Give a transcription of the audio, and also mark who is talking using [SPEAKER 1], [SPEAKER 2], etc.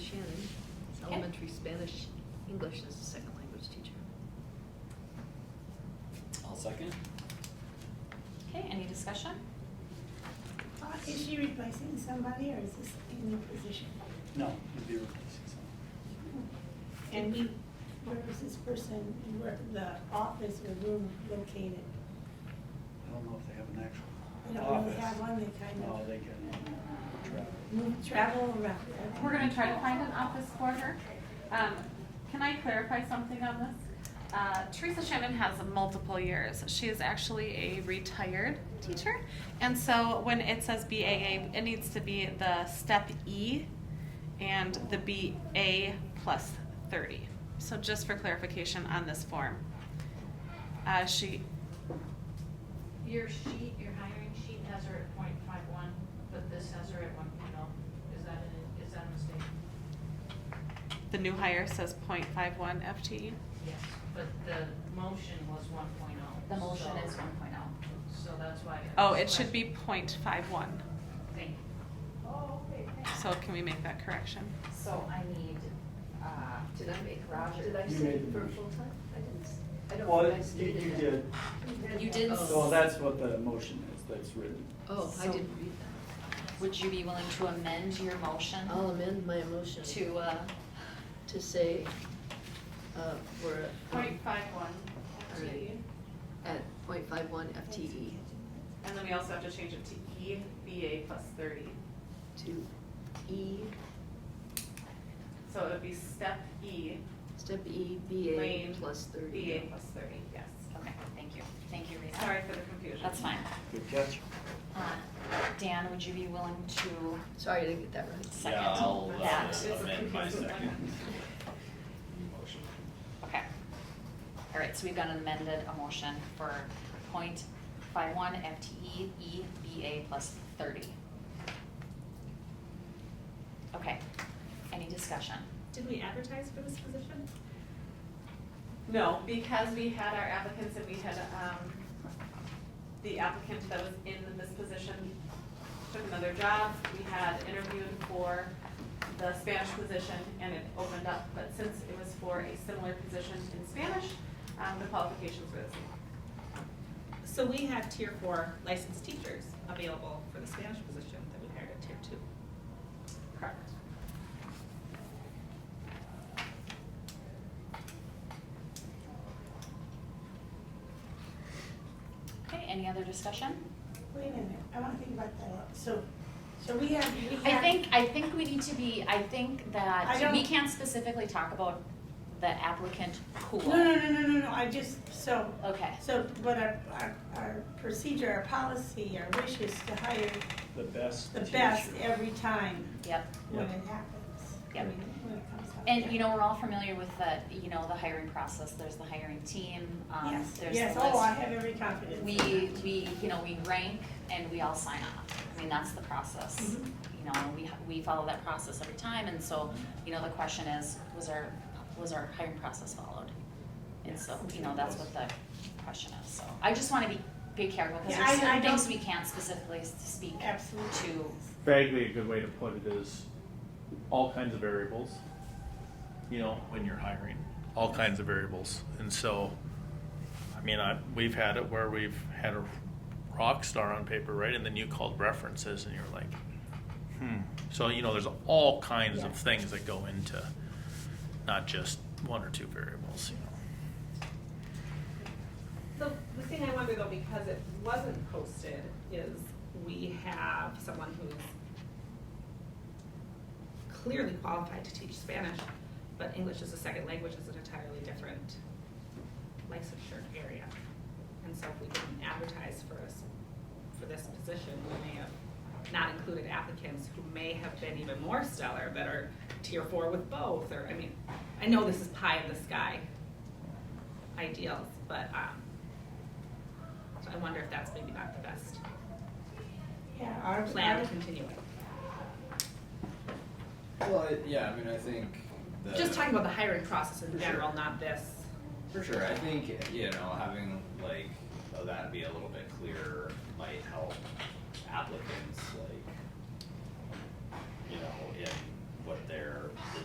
[SPEAKER 1] elementary Spanish, English as a second language teacher.
[SPEAKER 2] I'll second.
[SPEAKER 3] Okay, any discussion?
[SPEAKER 4] Uh, Is she replacing somebody or is this a new position?
[SPEAKER 2] No, you'd be replacing someone.
[SPEAKER 4] And we, where is this person, where the office or room located?
[SPEAKER 2] I don't know if they have an
[SPEAKER 4] We
[SPEAKER 2] actual
[SPEAKER 4] don't
[SPEAKER 2] office.
[SPEAKER 4] really have one that kind
[SPEAKER 5] Oh,
[SPEAKER 2] No,
[SPEAKER 4] of
[SPEAKER 2] they can uh, travel.
[SPEAKER 4] move, travel around.
[SPEAKER 3] We're gonna try to find an office for her. Um, can I clarify something on this? Uh, Teresa Shannon has multiple years. She is actually a retired teacher. And so when it says BAA, it needs to be the step E and the BA plus thirty. So just for clarification on this form. Uh, she,
[SPEAKER 6] Your sheet, your hiring sheet has her at point five one, but this has her at one point oh. Is that a, is that a mistake?
[SPEAKER 3] the new hire says 0.51 FTE.
[SPEAKER 6] Yes. But the motion was one point oh.
[SPEAKER 7] The motion is one point oh.
[SPEAKER 6] So that's why.
[SPEAKER 3] Oh, it should be 0.51.
[SPEAKER 6] Thank you.
[SPEAKER 3] So can we make that correction?
[SPEAKER 7] So I need, uh,
[SPEAKER 1] Did I make,
[SPEAKER 7] Roger.
[SPEAKER 1] did I
[SPEAKER 8] You
[SPEAKER 1] say
[SPEAKER 8] made the
[SPEAKER 1] for
[SPEAKER 8] motion.
[SPEAKER 1] full-time? I didn't, s- I don't
[SPEAKER 8] Well,
[SPEAKER 1] think I
[SPEAKER 8] you, you
[SPEAKER 1] stated that.
[SPEAKER 8] did,
[SPEAKER 7] you did, s-
[SPEAKER 8] so that's what the motion is, that's written.
[SPEAKER 1] Oh, I
[SPEAKER 7] So-
[SPEAKER 1] didn't read that.
[SPEAKER 7] would you be willing to amend your motion
[SPEAKER 1] I'll
[SPEAKER 4] Oh,
[SPEAKER 1] amend my motion
[SPEAKER 7] to, uh,
[SPEAKER 1] to say, uh, we're um,
[SPEAKER 6] Point five E. one,
[SPEAKER 1] FTE. at point five one E.
[SPEAKER 7] E.
[SPEAKER 1] FTE
[SPEAKER 3] And then we also have to change it to EBA plus thirty.
[SPEAKER 1] to E,
[SPEAKER 3] So it would be step E,
[SPEAKER 1] step E, BA
[SPEAKER 3] Lane,
[SPEAKER 1] plus thirty.
[SPEAKER 3] BA plus thirty, yes.
[SPEAKER 7] okay, thank you, thank you, Rita.
[SPEAKER 3] Sorry for the confusion.
[SPEAKER 7] That's fine.
[SPEAKER 8] Good catch.
[SPEAKER 7] Uh, Dan, would you be willing to
[SPEAKER 1] Sorry, I didn't get that right.
[SPEAKER 7] second
[SPEAKER 9] Yeah, I'll
[SPEAKER 7] that?
[SPEAKER 9] uh, amend my second motion.
[SPEAKER 7] Okay. All right, so we've got an amended a motion for point five one E FTE EBA plus thirty. Okay, any discussion?
[SPEAKER 10] Did we advertise for this position?
[SPEAKER 3] No, because we had our applicants and we had, um, the applicant that was in this position took another job. We had interviewed for the Spanish position and it opened up, but since it was for a similar position in Spanish, um, the qualifications were the same.
[SPEAKER 10] So we have tier four licensed teachers available for the Spanish position that we hired at tier two.
[SPEAKER 3] Correct.
[SPEAKER 7] Okay, any other discussion?
[SPEAKER 4] Wait a minute, I wanna think about that. So, so we have, we have.
[SPEAKER 7] I think, I think we need to be, I think
[SPEAKER 4] I
[SPEAKER 7] that
[SPEAKER 4] don't-
[SPEAKER 7] we can't specifically talk about the applicant pool.
[SPEAKER 4] No, no, no, no, no, no, I just, so,
[SPEAKER 7] Okay,
[SPEAKER 4] so what our, our, our procedure, our policy, our wish is to hire
[SPEAKER 8] The best
[SPEAKER 4] the
[SPEAKER 8] teacher.
[SPEAKER 4] best every time
[SPEAKER 7] yep.
[SPEAKER 4] when
[SPEAKER 8] Yep.
[SPEAKER 4] it happens. When
[SPEAKER 7] Yep.
[SPEAKER 4] it- when it comes up.
[SPEAKER 7] And you know, we're all familiar with the, you know, the hiring process, there's the hiring team, um,
[SPEAKER 4] Yes,
[SPEAKER 7] there's the
[SPEAKER 4] yes, oh, I
[SPEAKER 7] list.
[SPEAKER 4] have every confidence.
[SPEAKER 7] We,
[SPEAKER 4] in that.
[SPEAKER 7] we, you know, we rank and we all sign off, I mean, that's the process.
[SPEAKER 4] Mhm.
[SPEAKER 7] You know, we, we follow that process every time, and so, you know, the question is, was our, was our hiring process followed? And so, you know, that's what the question is, so, I just wanna be, be careful, because
[SPEAKER 4] Yeah,
[SPEAKER 7] there's
[SPEAKER 4] I- I
[SPEAKER 7] certain things
[SPEAKER 4] don't-
[SPEAKER 7] we can't specifically s- speak to.
[SPEAKER 4] Absolutely.
[SPEAKER 5] vaguely a good way to put it is all kinds of variables. You know, when you're hiring, all kinds of variables, and so, I mean, I we've had it where we've had a rock star on paper, right? And then you called references, and you're like, hmm. So you know, there's all kinds of things that go into, not just one or two variables. You know.
[SPEAKER 10] The, the thing I wonder though, because it wasn't posted, is we have someone who's clearly qualified to teach Spanish, but English as a second language is an entirely different licensure area. And so if we didn't advertise for us, for this position, we may have not included applicants who may have been even more stellar, that are tier four with both, or, I mean, I know this is pie in the sky ideals, but, um, so I wonder if that's maybe not the best
[SPEAKER 4] Yeah, our
[SPEAKER 10] plan to continue it.
[SPEAKER 9] Well, I- yeah, I mean, I think the.
[SPEAKER 10] Just talking about the hiring process in
[SPEAKER 9] For sure.
[SPEAKER 10] general, not this.
[SPEAKER 9] For sure, I think, you know, having like, uh, that be a little bit clearer might help applicants, like, you know, in what their, the